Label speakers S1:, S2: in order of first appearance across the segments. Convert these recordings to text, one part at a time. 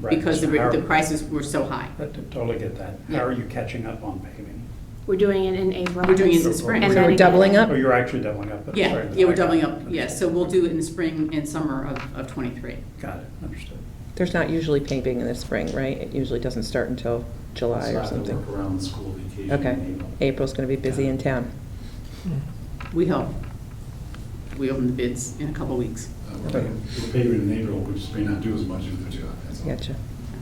S1: Right,
S2: because the,
S1: so
S2: re-
S1: how-
S2: the prices were so high.
S1: I t- Totally get that.
S2: Yeah.
S1: How are you catching up on paving?
S3: We're doing it in April.
S2: We're doing it in
S1: So-
S2: the spring.
S3: And
S4: So
S3: then
S4: we're doubling
S3: again-
S4: up?
S1: Oh, you're actually doubling up. but
S2: Yeah,
S1: sorry,
S2: yeah, we're
S1: I-
S2: doubling up, yes, so we'll do it in the spring and summer of, of twenty-three.
S1: Got it, understood.
S4: There's not usually paving in the spring, right? It usually doesn't start until July or
S5: It's not gonna work
S4: something.
S5: around school vacation
S4: Okay.
S5: in April.
S4: April's going to be busy in town.
S2: We hope. We open the bids in a couple weeks.
S5: Uh, We're paying- we're paving in April, which may not do as much as the two, that's all.
S4: Gotcha.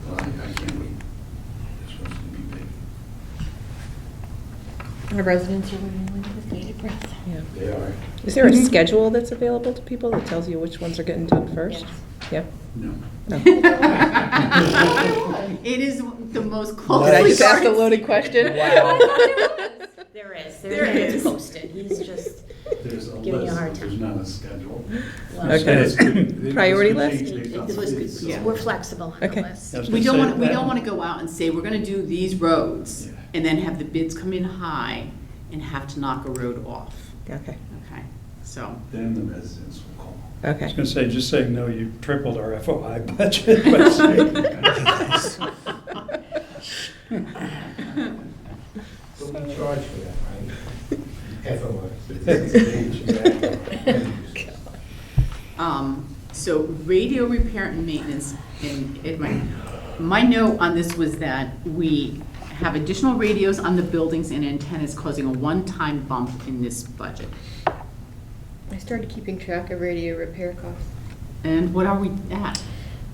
S5: But I, I can't wait. It's supposed to be paved.
S6: Our residents are waiting with bated breath.
S4: Yeah.
S5: They are.
S4: Is there a schedule that's available to people that tells you which ones are getting done first? Yeah?
S5: No.
S4: No.
S2: It is the most closely.
S4: Did I just ask a
S2: guarded
S4: loaded
S2: secret.
S4: question?
S3: There is,
S2: There
S3: there's,
S2: is.
S3: it's posted, he's just,
S5: There's a
S3: Giving you a
S5: list,
S3: hard
S5: but there's not a schedule.
S3: well,
S4: Okay.
S5: And it's- it-
S4: Priority
S5: it's
S4: list?
S5: changed based on
S3: It was
S5: the
S3: good,
S5: so-
S2: yeah.
S3: we're flexible on the
S4: Okay.
S3: list.
S1: I was
S2: We
S1: gonna
S2: don't
S1: say
S2: want, we
S1: that-
S2: don't want to go out and say, we're going to do these roads,
S5: Yeah.
S2: and then have the bids come in high and have to knock a road off,
S4: Okay,
S2: okay? So,
S5: Then the residents will call.
S1: I was
S4: okay.
S1: going to say, just saying no, you tripled our FOI budget by saying.
S7: But we charge for that, right? Everyone.
S2: um, so radio repair and maintenance, and it might, my note on this was that we have additional radios on the buildings and antennas causing a one-time bump in this budget.
S6: I started keeping track of radio repair costs.
S2: And what are we at?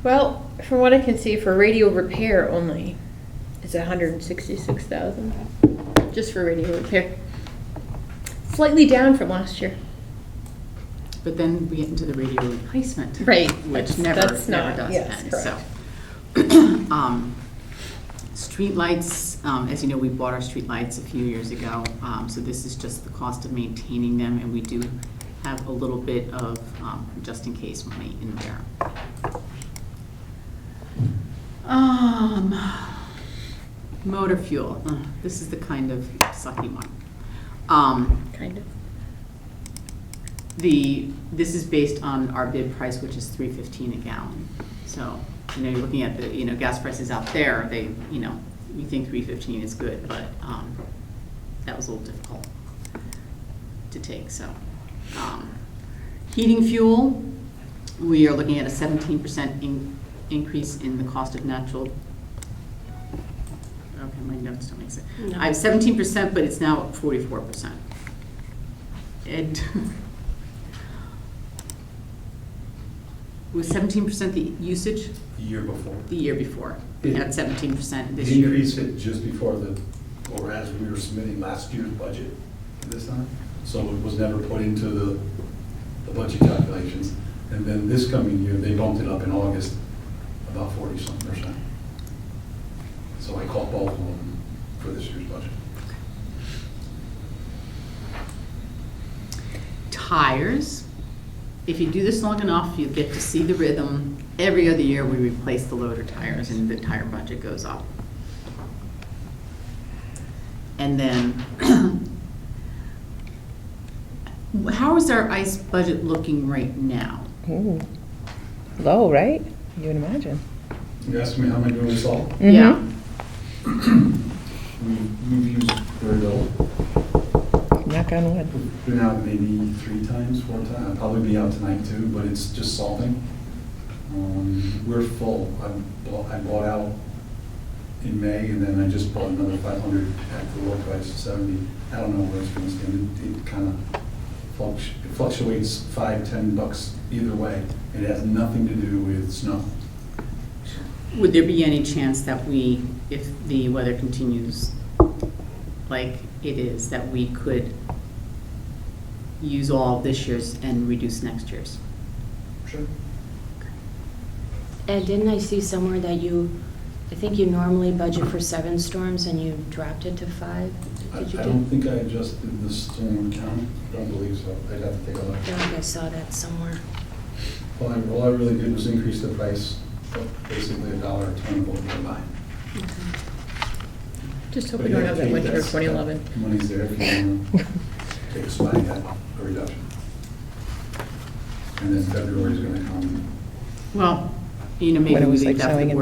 S6: Well, from what I can see, for radio repair only, it's a hundred and sixty-six thousand, just for radio repair. Slightly down from last year.
S2: But then we get into the radio replacement.
S6: Right,
S2: Which
S6: that's-
S2: never,
S6: that's
S2: never
S6: not-
S2: does
S6: yes,
S2: end, so.
S6: correct.
S2: Um, Streetlights, um, as you know, we bought our streetlights a few years ago, um, so this is just the cost of maintaining them, and we do have a little bit of, um, just in case money in there. Um, motor fuel, uh, this is the kind of sucky one. Um,
S6: Kind of.
S2: the, this is based on our bid price, which is three fifteen a gallon. So, you know, you're looking at the, you know, gas prices out there, they, you know, we think three fifteen is good, but, um, that was a little difficult to take, so. um, Heating fuel, we are looking at a seventeen percent in, increase in the cost of natural. Okay, my notes don't make sense.
S3: No.
S2: I have seventeen percent, but it's now forty-four percent. Ed. Was seventeen percent the usage
S5: The year before.
S2: the year before? We had seventeen percent this
S5: The
S2: year.
S5: increase it just before the, or as we were submitting last year's budget this time. So it was never put into the, the budget calculations. And then this coming year, they bumped it up in August about forty something percent. So I caught both of them for this year's budget.
S2: tires. If you do this long enough, you get to see the rhythm. Every other year, we replace the loader tires and the tire budget goes up. And then, how is our ICE budget looking right now?
S4: Ooh. Low, right? You would imagine.
S5: You asked me how am I doing this all?
S4: Mm-hmm.
S2: Yeah.
S5: We, we've used very little.
S4: Mhm. Knock on wood.
S5: We've Been out maybe three times, four times, I'll probably be out tonight too, but it's just salting. Um, We're full, I bought, I bought out in May, and then I just bought another five hundred at the low price of seventy. I don't know where it's gonna stand, it, it kinda fluctu- it fluctuates five, ten bucks either way. It has nothing to do with snow.
S2: Would there be any chance that we, if the weather continues like it is, that we could use all of this year's and reduce next year's?
S5: Sure.
S3: And didn't I see somewhere that you, I think you normally budget for seven storms and you dropped it to five?
S5: I, I
S3: Did you
S5: don't think I adjusted the storm count, I don't believe so, I'd have to take a look.
S3: I feel like I saw that somewhere.
S5: All I, all I really did was increase the price, of basically a dollar a ton of what we buy.
S6: Just hope
S5: But
S6: we don't
S5: yeah,
S6: have that
S5: Kate,
S6: winter of
S5: that's-
S6: twenty eleven.
S5: that Money's there if you want to take a swag at a reduction. And then February's gonna come.
S2: Well, you know, maybe
S4: When it
S2: we
S4: was,
S2: leave
S4: like,
S2: that for the
S4: snowing in